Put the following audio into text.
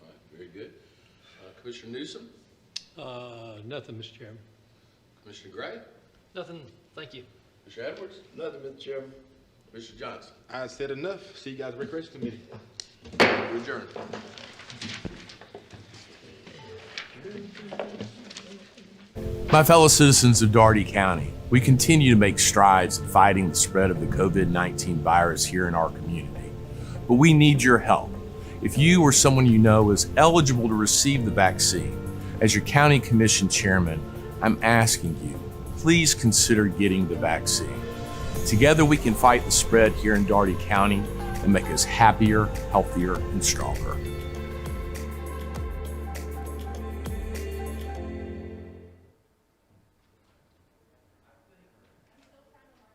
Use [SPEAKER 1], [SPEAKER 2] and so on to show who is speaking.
[SPEAKER 1] good. Uh, Commissioner Newsom,
[SPEAKER 2] Uh, nothing, Mr. Chairman.
[SPEAKER 1] Commissioner Gray,
[SPEAKER 3] Nothing, thank you.
[SPEAKER 1] Commissioner Edwards,
[SPEAKER 4] Nothing, Mr. Chairman.
[SPEAKER 1] Commissioner Johnson.
[SPEAKER 5] I said enough. See you guys, at Recreation Committee.
[SPEAKER 1] We're adjourned.
[SPEAKER 6] My fellow citizens of Daugherty County, we continue to make strides in fighting the spread of the COVID 19 virus here in our community. But we need your help. If you or someone you know is eligible to receive the vaccine, as your County Commission Chairman, I'm asking you, please consider getting the vaccine. Together, we can fight the spread here in Daugherty County and make us happier, healthier, and stronger.